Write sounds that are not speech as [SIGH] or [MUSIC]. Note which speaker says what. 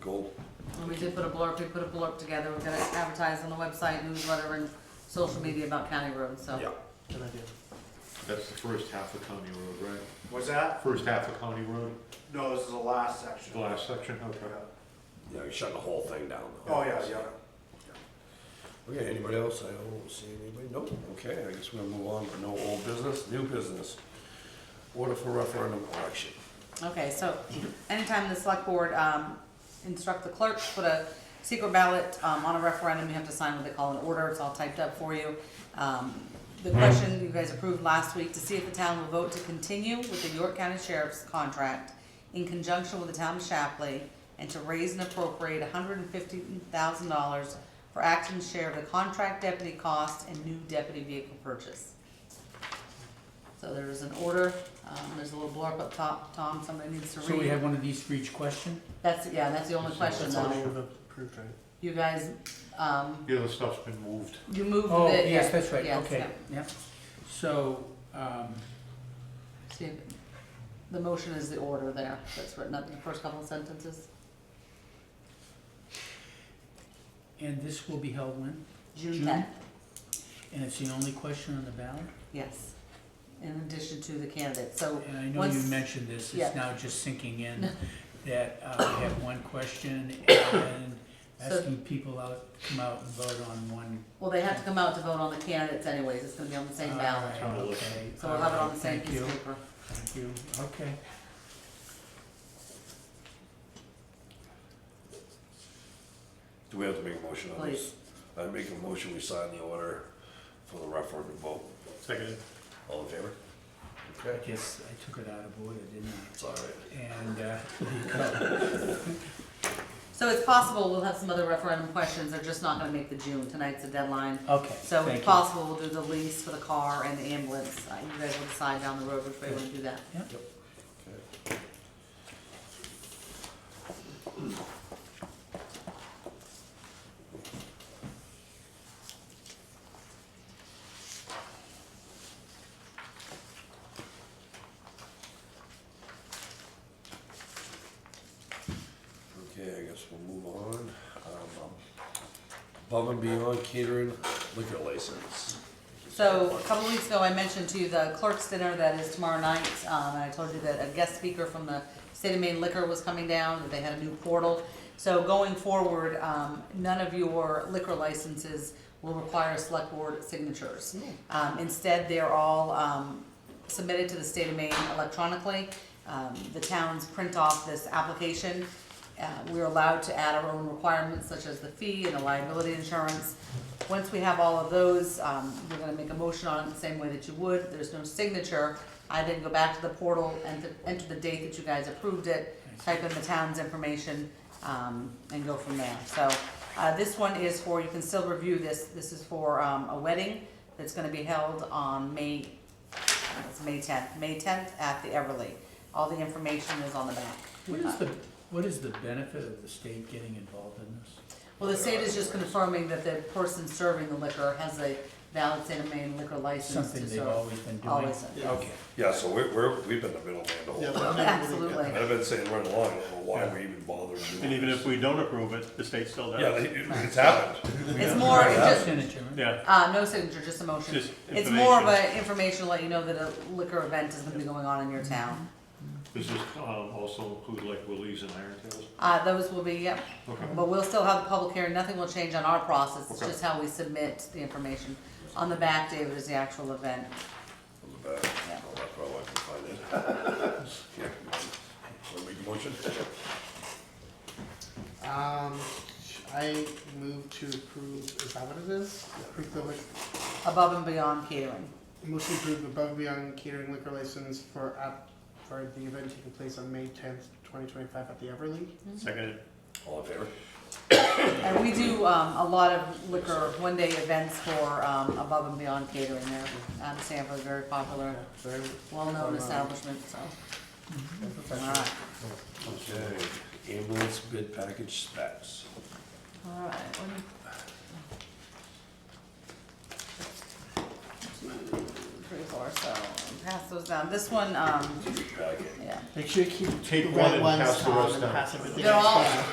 Speaker 1: Cool.
Speaker 2: And we did put a blurb, we put a blurb together, we're gonna advertise on the website, newsletter, and social media about county roads, so.
Speaker 3: Oh.
Speaker 1: Yeah.
Speaker 4: Good idea.
Speaker 5: That's the first half of County Road, right?
Speaker 3: What's that?
Speaker 5: First half of County Road,
Speaker 3: No, this is the last section.
Speaker 5: the last section,
Speaker 3: Yeah.
Speaker 5: okay.
Speaker 1: Yeah, you're shutting the whole thing down. though.
Speaker 3: Oh, yeah, yeah.
Speaker 1: Okay, anybody else? I don't see anybody. Nope. Okay, I guess we'll move on to no old business, new business. Order for referendum election.
Speaker 2: Okay, so anytime the select board um, instruct the clerk to put a secret ballot um, on a referendum, you have to sign what they call an order, it's all typed up for you. Um, The question you guys approved last week, to see if the town will vote to continue with the York County Sheriff's contract in conjunction with the town of Shapley, and to raise and appropriate hundred and fifty thousand dollars for acting share of the contract deputy cost and new deputy vehicle purchase. So there is an order, um, there's a little blurb up top, Tom, somebody needs to read.
Speaker 4: So we have one of these for each question?
Speaker 2: That's, yeah, that's the only question
Speaker 4: That's all
Speaker 2: though.
Speaker 4: we've approved, right?
Speaker 2: You guys, um,
Speaker 5: The other stuff's been moved.
Speaker 2: you moved the.
Speaker 4: Oh, yes,
Speaker 2: yeah,
Speaker 4: that's right,
Speaker 2: yes,
Speaker 4: okay,
Speaker 2: yeah.
Speaker 4: yeah. So, um,
Speaker 2: See, The motion is the order there, that's written up in the first couple of sentences.
Speaker 4: and this will be held when?
Speaker 2: June
Speaker 4: June?
Speaker 2: tenth,
Speaker 4: And it's the only question on the ballot?
Speaker 2: yes, in addition to the candidates, so.
Speaker 4: And I know you
Speaker 2: once-
Speaker 4: mentioned this,
Speaker 2: yeah.
Speaker 4: it's now just sinking in,
Speaker 2: [LAUGHS]
Speaker 4: that uh, we have one question and
Speaker 2: So-
Speaker 4: asking people out, come out and vote on one.
Speaker 2: Well, they have to come out to vote on the candidates anyways, it's gonna be on the same ballot,
Speaker 4: All right, okay,
Speaker 2: so we'll have it
Speaker 4: all
Speaker 2: on
Speaker 4: right,
Speaker 2: the same
Speaker 4: thank
Speaker 2: piece
Speaker 4: you,
Speaker 2: of paper.
Speaker 4: Thank you, okay.
Speaker 1: Do we have to make a motion on this?
Speaker 2: Please.
Speaker 1: I make a motion, we sign the order for the referendum vote.
Speaker 5: Seconded.
Speaker 1: All in favor?
Speaker 4: I
Speaker 1: Okay,
Speaker 4: guess I took it out of order, didn't I?
Speaker 1: it's all right.
Speaker 4: And, uh, [LAUGHS] there you go.
Speaker 2: So it's possible we'll have some other referendum questions, they're just not gonna make the June, tonight's the deadline.
Speaker 4: Okay,
Speaker 2: So
Speaker 4: thank
Speaker 2: if
Speaker 4: you.
Speaker 2: possible, we'll do the lease for the car and the ambulance, Uh, you guys will decide down the road which way you wanna do that.
Speaker 1: Okay. Okay, I guess we'll move on. Um, Above and beyond catering liquor license.
Speaker 2: So a couple of weeks ago, I mentioned to you the clerk's dinner that is tomorrow night, um, and I told you that a guest speaker from the state of Maine liquor was coming down, that they had a new portal. So going forward, um, none of your liquor licenses will require select board signatures. Um, instead, they're all, um, submitted to the state of Maine electronically. Um, the towns print off this application. Uh, we're allowed to add our own requirements such as the fee and the liability insurance. Once we have all of those, um, we're gonna make a motion on it the same way that you would, there's no signature. I then go back to the portal and th- enter the date that you guys approved it, type in the town's information, um, and go from there. So, uh, this one is for, you can still review this, this is for, um, a wedding that's gonna be held on May it's May tenth, May tenth at the Everly. All the information is on the back.
Speaker 4: What is the, what is the benefit of the state getting involved in this?
Speaker 2: Well, the state is just confirming that the person serving the liquor has a valid state of Maine liquor license to
Speaker 4: Something
Speaker 2: serve.
Speaker 4: they've always been doing?
Speaker 2: Always, yes.
Speaker 4: Okay,
Speaker 1: Yeah, so we're, we're, we've been the middleman the whole time.
Speaker 2: Absolutely.
Speaker 1: I've been saying right along, I don't know why we even bother doing
Speaker 6: And even
Speaker 1: this.
Speaker 6: if we don't approve it, the state still
Speaker 1: Yeah,
Speaker 6: does.
Speaker 1: it- it- it's happened.
Speaker 2: It's more, it's just,
Speaker 4: Signature, right?
Speaker 6: Yeah,
Speaker 2: uh, no signature, just a motion.
Speaker 6: Just
Speaker 2: It's more of
Speaker 6: information.
Speaker 2: a information to let you know that a liquor event is gonna be going on in your town.
Speaker 5: Does this um, also include like Willie's and Iron Tails?
Speaker 2: Uh, those will be, yep,
Speaker 5: Okay.
Speaker 2: but we'll still have the public hearing, nothing will change on our process, it's
Speaker 5: Okay.
Speaker 2: just how we submit the information. On the back, David, is the actual event.
Speaker 1: On the back. Oh, I probably can find it. Yeah, wanna make a motion?
Speaker 7: Um, I move to approve, is that what it is? Approve the, lic-
Speaker 2: Above and beyond catering.
Speaker 7: motion to approve above and beyond catering liquor license for app, for the event taking place on May tenth, twenty twenty-five at the Everly.
Speaker 6: seconded.
Speaker 1: All in favor?
Speaker 2: And we do um, a lot of liquor, one-day events for um, Above and Beyond Catering there. Out of Sanford, very popular,
Speaker 7: Very
Speaker 2: well-known establishment, so. All
Speaker 7: professional.
Speaker 2: right,
Speaker 1: Okay, ambulance bid package specs.
Speaker 2: all right. what do you- Three, four, so pass those down. This one, um,
Speaker 1: Packet.
Speaker 2: yeah.
Speaker 7: Make sure you keep
Speaker 5: Take
Speaker 7: the
Speaker 5: one
Speaker 7: red
Speaker 5: and
Speaker 7: ones
Speaker 5: pass the
Speaker 7: Tom,
Speaker 5: rest
Speaker 7: and
Speaker 5: down.
Speaker 7: pass everything
Speaker 2: They're
Speaker 7: else
Speaker 2: all-
Speaker 7: down.